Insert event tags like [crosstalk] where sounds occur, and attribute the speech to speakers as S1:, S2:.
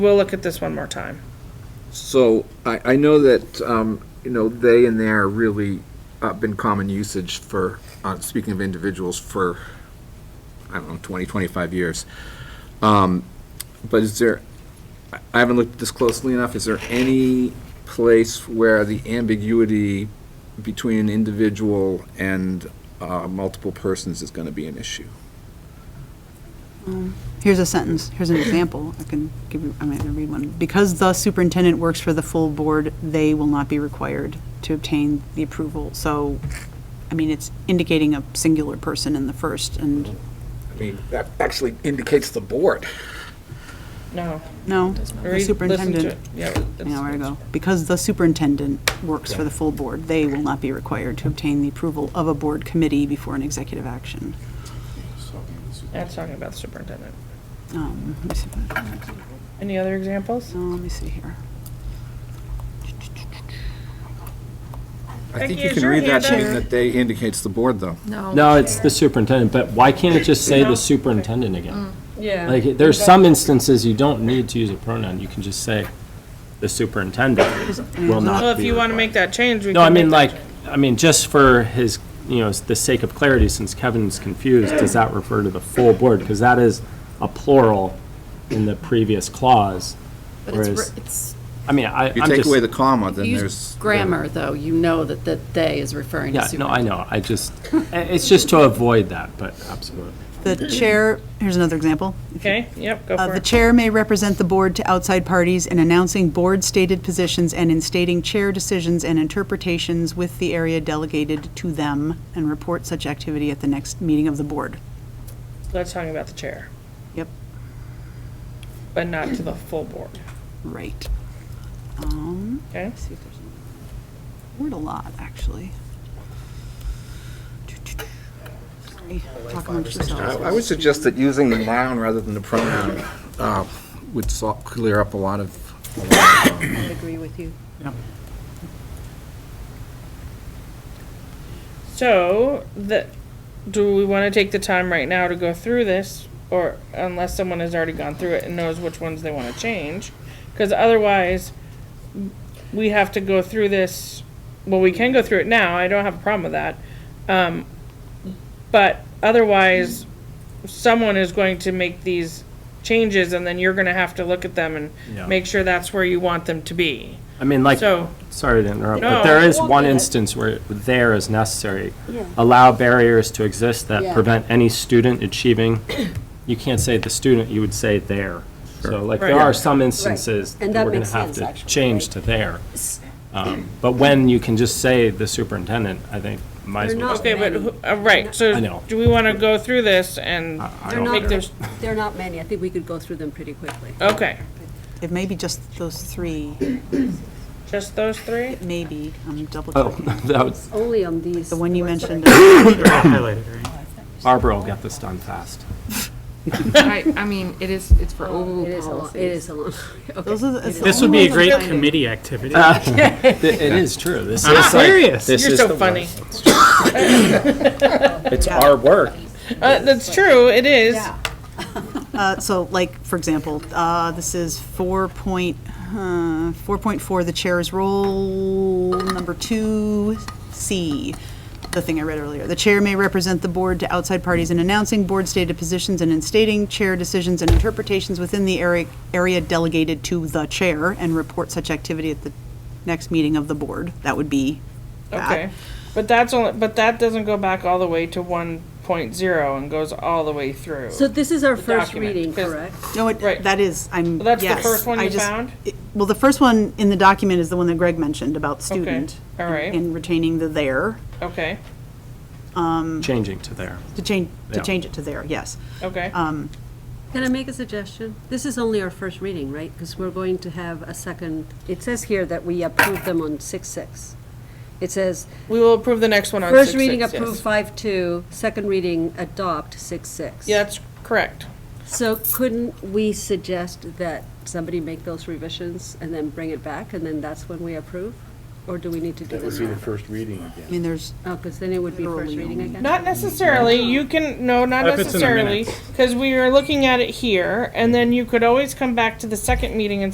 S1: We'll look at this one more time.
S2: So I, I know that, um, you know, they and there really uh, been common usage for, uh, speaking of individuals, for, I don't know, 20, 25 years. Um, But is there, I- I haven't looked at this closely enough, is there any place where the ambiguity between an individual and uh, multiple persons is going to be an issue?
S3: Here's a sentence, here's an example, I can give you, I'm going to read one. Because the superintendent works for the full board, they will not be required to obtain the approval. So, I mean, it's indicating a singular person in the first, and,
S2: I mean, that actually indicates the board.
S1: No.
S3: no,
S1: Read-
S3: the
S1: listen to it.
S3: superintendent.
S1: Yeah, it's-
S3: Yeah, where to go? Because the superintendent works for the full board, they will not be required to obtain the approval of a board committee before an executive action.
S1: That's talking about the superintendent.
S3: Um, Let me see if I-
S1: Any other examples?
S3: no, let me see here.
S2: I think
S1: Becky,
S2: you
S1: is
S2: can
S1: your
S2: read
S1: hand
S2: that,
S1: up?
S2: being that they indicates the board, though.
S4: No, it's the superintendent, but why can't it just say the superintendent again?
S5: Mm, Yeah.
S4: Like, there's some instances you don't need to use a pronoun, you can just say the superintendent will not
S1: Well, if
S4: be
S1: you want to make
S4: required."
S1: that change, we can.
S4: No, I mean,
S1: make
S4: like,
S1: that
S4: I mean, just for his, you know, the sake of clarity, since Kevin's confused, does that refer to the full board? Because that is a plural in the previous clause,
S5: But it's,
S4: whereas,
S5: re- it's,
S4: I mean, I, I'm
S2: If you
S4: just.
S2: take away the comma, then
S5: use
S2: there's.
S5: grammar, though, you know that the "they" is referring to
S4: Yeah, no, I
S5: superintendent.
S4: know, I
S5: [laughs]
S4: just, it's just to avoid that, but absolutely.
S3: The chair, here's another example.
S1: change. Okay, yep, go
S3: Uh,
S1: for
S3: The
S1: it.
S3: chair may represent the board to outside parties in announcing board-stated positions and in stating chair decisions and interpretations with the area delegated to them, and report such activity at the next meeting of the board.
S1: That's talking about the chair,
S3: Yep,
S1: but not to the full board,
S3: right. Um,
S1: okay?
S3: let's see if there's a word a lot, actually. Sorry, talk amongst
S2: I
S3: yourselves.
S2: I would suggest that using the noun rather than the pronoun uh, would sol- clear up a lot of, a lot of, um,
S3: agree with you.
S1: So, the, do we want to take the time right now to go through this? Or unless someone has already gone through it and knows which ones they want to change? Because otherwise, we have to go through this, well, we can go through it now, I don't have a problem with that. Um, But otherwise, someone is going to make these changes and then you're going to have to look at them
S4: Yeah.
S1: and make sure that's where you want them to be.
S4: I mean, like,
S1: So-
S4: sorry to interrupt,
S1: No.
S4: but there is one instance where there is necessary. Allow barriers to exist that prevent any student achieving, you can't say the student, you would say there. So like, there
S1: Right.
S4: are some instances that
S6: And that
S4: we're gonna
S6: makes
S4: have
S6: sense,
S4: to
S6: actually,
S4: change
S6: right?
S4: to there. Um, But when you can just say the superintendent, I think might as
S6: They're
S4: well.
S6: not
S4: just-
S1: Okay, but, who- uh, right,
S4: I
S1: so
S4: know.
S1: do we want to go through this and
S4: I- I
S6: They're
S4: don't
S6: not-
S1: make
S4: care.
S1: those,
S6: There are not many. I think we could go through them pretty quickly.
S1: okay,
S3: It may be just those three,
S1: just those three?
S3: maybe, I'm double
S4: Oh,
S3: checking.
S4: that was,
S6: Only on these.
S3: The one you mentioned,
S4: Barbara will get this done fast.
S7: I, I mean, it is, it's for
S6: It
S7: oval
S6: is a lot, it
S7: policies.
S6: is a lot.
S3: those are the. it's the
S8: This would be
S3: only
S8: a
S3: ones I'm
S8: great
S3: finding.
S8: committee activity.
S4: Uh,
S6: [laughs]
S4: [laughs] It it is true, this
S8: I'm
S4: is like,
S8: serious.
S4: this
S1: You're
S4: is
S1: so
S4: the
S1: funny.
S4: work. It's our work.
S1: Uh, that's true, it is.
S3: Uh, So like, for example, uh, this is four point, uh, four point four, the chair's role, number two, C, the thing I read earlier. The chair may represent the board to outside parties in announcing board stated positions and in stating chair decisions and interpretations within the area, area delegated to the chair and report such activity at the next meeting of the board. That would be that.
S1: Okay, but that's only, but that doesn't go back all the way to one point zero and goes all the way through.
S6: So this is our
S1: The
S6: first
S1: document,
S6: reading,
S1: 'cause-
S6: correct?
S3: No, it,
S1: Right.
S3: that is, I'm,
S1: Well, that's the
S3: yes,
S1: first one
S3: I
S1: you
S3: just-
S1: found?
S3: it- Well, the first one in the document is the one that Greg mentioned about student.
S1: all right.
S3: And retaining the there,
S1: Okay,
S4: Changing to there.
S3: to change, to
S4: Yeah.
S3: change it to there, yes.
S1: okay.
S6: Uh, Can I make a suggestion? This is only our first reading, right? Because we're going to have a second. It says here that we approve them on six six. It says,
S1: We will approve the next one on six
S6: first reading
S1: six,
S6: approve
S1: yes.
S6: five two, second reading adopt six six.
S1: Yeah, that's correct.
S6: So couldn't we suggest that somebody make those revisions and then bring it back, and then that's when we approve? Or do we need to do
S8: That would
S6: this
S8: be the
S6: now?
S8: first reading again.
S3: I mean, there's,
S6: Oh, because then it would be first
S3: Literally
S6: reading
S3: only.
S6: again?
S1: Not necessarily, you can, no, not
S4: If it's in Mm-hmm. the
S1: necessarily,
S4: minutes.
S1: because we are looking at it here, and then you could always come back to the second meeting and